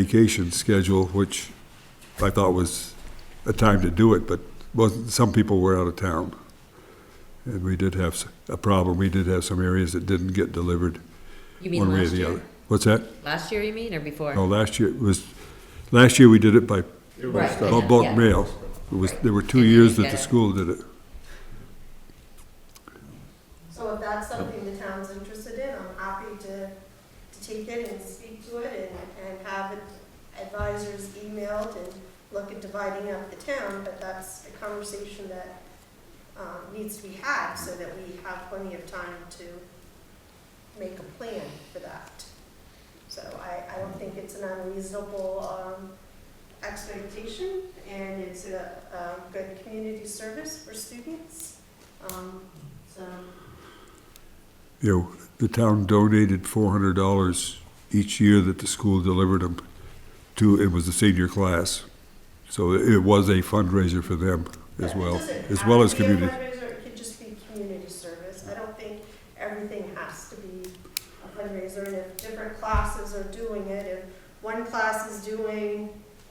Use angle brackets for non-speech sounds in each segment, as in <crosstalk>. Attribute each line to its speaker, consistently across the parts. Speaker 1: vacation schedule, which I thought was a time to do it, but wasn't, some people were out of town. And we did have s- a problem, we did have some areas that didn't get delivered
Speaker 2: You mean
Speaker 1: one way or
Speaker 2: last
Speaker 1: the
Speaker 2: year?
Speaker 1: other. What's that?
Speaker 2: Last year, you mean, or before?
Speaker 1: No, last year it was, last year we did it by
Speaker 2: Right,
Speaker 1: bu-
Speaker 2: yeah,
Speaker 1: bulk
Speaker 2: yeah.
Speaker 1: mail. It was, there were two
Speaker 2: And then
Speaker 1: years
Speaker 2: you
Speaker 1: that the
Speaker 2: get it.
Speaker 1: school did it.
Speaker 3: So if that's something the town's interested in, I'm happy to, to take it and speak to it and, and have advisors emailed and look at dividing up the town, but that's a conversation that, um, needs to be had so that we have plenty of time to make a plan for that. So I, I don't think it's an unreasonable, um, expectation and it's a, a good community service for students. Um, so
Speaker 1: You know, the town donated four hundred dollars each year that the school delivered them to, it was the senior class. So it was a fundraiser for them as
Speaker 3: But it
Speaker 1: well,
Speaker 3: doesn't
Speaker 1: as
Speaker 3: have
Speaker 1: well
Speaker 3: to
Speaker 1: as
Speaker 3: be a
Speaker 1: community.
Speaker 3: fundraiser, It could just be community service. I don't think everything has to be a fundraiser, and if different classes are doing it, if one class is doing,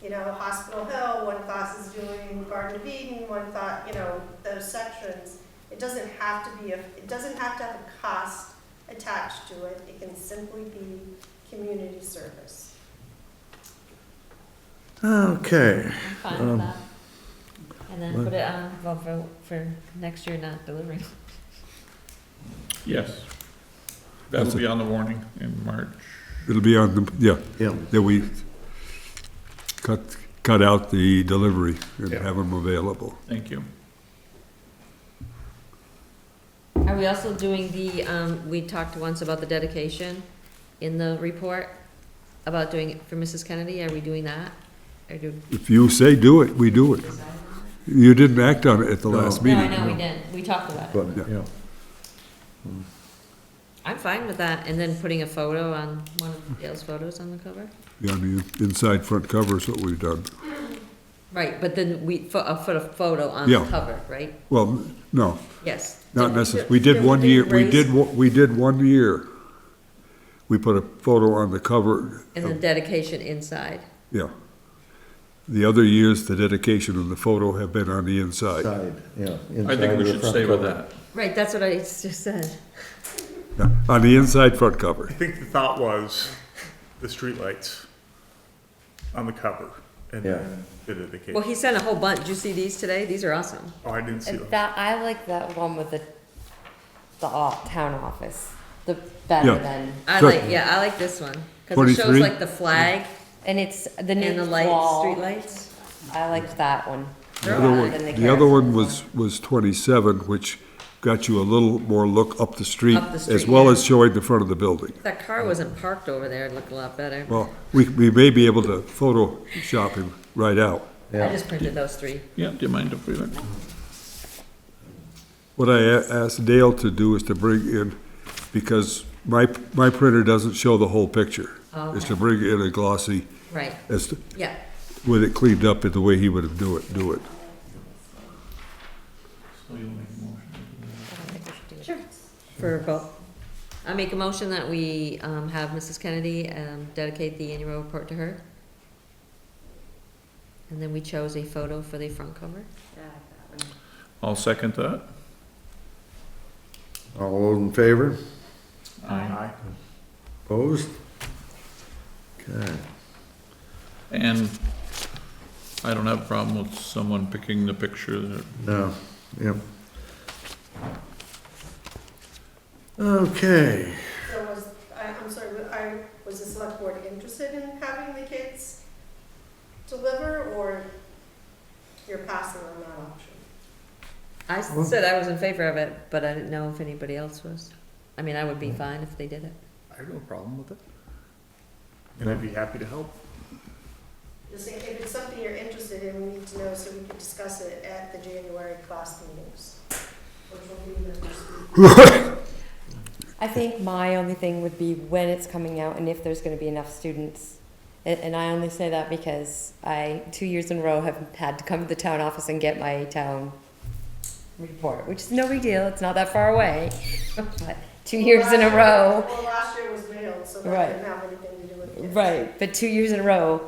Speaker 3: you know, Hospital Hill, one class is doing Garden of Eden, one thought, you know, those sections, it doesn't have to be a, it doesn't have to have a cost attached to it. It can simply be community service.
Speaker 4: Okay,
Speaker 2: I'm fine
Speaker 1: Um,
Speaker 2: with that. And then put it on, well, for, for next year not delivering.
Speaker 5: Yes.
Speaker 1: That's it.
Speaker 5: That'll be on the warning in March.
Speaker 1: It'll be on the, yeah,
Speaker 4: yeah,
Speaker 1: that we cut, cut out the delivery and
Speaker 5: Yeah.
Speaker 1: have them available.
Speaker 5: Thank you.
Speaker 2: Are we also doing the, um, we talked once about the dedication in the report, about doing it for Mrs. Kennedy, are we doing that? Or do?
Speaker 1: If you say do it, we do it. You didn't act on it at the
Speaker 4: No.
Speaker 1: last
Speaker 2: No, I
Speaker 1: meeting.
Speaker 2: know, we didn't, we talked about it.
Speaker 4: but,
Speaker 1: Yeah.
Speaker 4: yeah,
Speaker 2: I'm fine with that, and then putting a photo on, one of Dale's photos on the cover.
Speaker 1: Yeah, I mean, inside front cover is what we've done.
Speaker 2: Right, but then we, put a photo- photo on the
Speaker 1: Yeah.
Speaker 2: cover, right?
Speaker 1: Well, no,
Speaker 2: Yes.
Speaker 1: Not
Speaker 2: Didn't we
Speaker 1: necessarily,
Speaker 2: do-
Speaker 1: we did
Speaker 2: didn't
Speaker 1: one
Speaker 2: do
Speaker 1: year, we
Speaker 2: raise
Speaker 1: did, one- we did one year. We put a photo on the cover,
Speaker 2: And then dedication inside.
Speaker 1: yeah. The other years, the dedication and the photo have been on the inside.
Speaker 4: side, yeah.
Speaker 5: I
Speaker 4: inside
Speaker 5: think we
Speaker 4: the
Speaker 5: should
Speaker 4: front
Speaker 5: stay with
Speaker 4: cover.
Speaker 5: that.
Speaker 2: Right, that's what I just said.
Speaker 1: Yeah, On the inside front cover,
Speaker 6: I think the thought was the streetlights on the cover and
Speaker 4: Yeah.
Speaker 6: then the dedication.
Speaker 2: Well, he sent a whole bunch. Did you see these today? These are awesome.
Speaker 6: Oh, I didn't see
Speaker 7: And
Speaker 6: them.
Speaker 7: That, I like that one with the, the o- town office, the better
Speaker 1: Yeah.
Speaker 7: than,
Speaker 2: I
Speaker 1: Sure.
Speaker 2: like, yeah, I like this one. Cause it shows
Speaker 1: 23?
Speaker 2: like the flag
Speaker 7: and it's the
Speaker 2: and
Speaker 7: new
Speaker 2: the lights, street
Speaker 7: wall.
Speaker 2: lights.
Speaker 7: I liked that one.
Speaker 1: The other one-
Speaker 7: Than
Speaker 1: the other one
Speaker 7: kerosene
Speaker 1: was, was twenty-seven, which got you a little more look up the street,
Speaker 2: Up the
Speaker 1: as
Speaker 2: street,
Speaker 1: well
Speaker 2: yeah.
Speaker 1: as showing the front of the building.
Speaker 2: That car wasn't parked over there. It looked a lot better.
Speaker 1: Well, we, we may be able to Photoshop him right out.
Speaker 2: I
Speaker 4: Yeah,
Speaker 2: just printed those three.
Speaker 5: Yeah, do you mind if we went?
Speaker 1: What I a- asked Dale to do is to bring in, because my, my printer doesn't show the whole picture. Is to bring in a glossy,
Speaker 2: Right,
Speaker 1: as, to-
Speaker 2: yeah.
Speaker 1: with it cleaned up in the way he would have do it, do it.
Speaker 2: Sure. For both. I make a motion that we, um, have Mrs. Kennedy, um, dedicate the annual report to her. And then we chose a photo for the front cover.
Speaker 5: I'll second that.
Speaker 4: all those in favor,
Speaker 6: Aye.
Speaker 4: opposed? Okay,
Speaker 5: And I don't have a problem with someone picking the picture that
Speaker 4: now, yep. Okay,
Speaker 3: So was, I, I'm sorry, wa- I, was the select board interested in having the kids deliver, or you're passing on that option?
Speaker 2: I s- said I was in favor of it, but I didn't know if anybody else was. I mean, I would be fine if they did it.
Speaker 6: I have no problem with it. And I'd be happy to help.
Speaker 3: Just think if it's something you're interested in, we need to know so we can discuss it at the January class meetings, which will be the first week.
Speaker 7: I think my only thing would be when it's coming out and if there's gonna be enough students. And, and I only say that because I, two years in a row, have had to come to the town office and get my town report, which is no big deal, it's not that far away. <laughs> But two years in a row.
Speaker 3: Well, last year was mailed, so that
Speaker 7: Right.
Speaker 3: didn't have anything to do with it.
Speaker 2: Right, but two years in a row,